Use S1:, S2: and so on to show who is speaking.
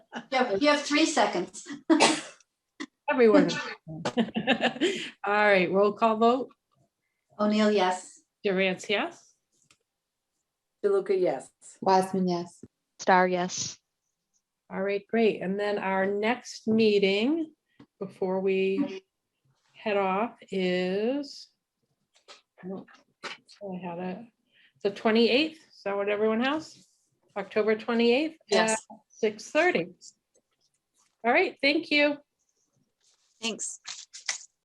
S1: Yeah, you have three seconds.
S2: Everyone. All right, roll call vote.
S1: O'Neill, yes.
S2: Durance, yes?
S3: DeLuca, yes.
S4: Wiseman, yes.
S5: Star, yes.
S2: All right, great. And then our next meeting before we head off is I don't- I had it, the twenty-eighth, is that what everyone has? October twenty-eighth?
S4: Yes.
S2: Six thirty. All right, thank you.
S5: Thanks.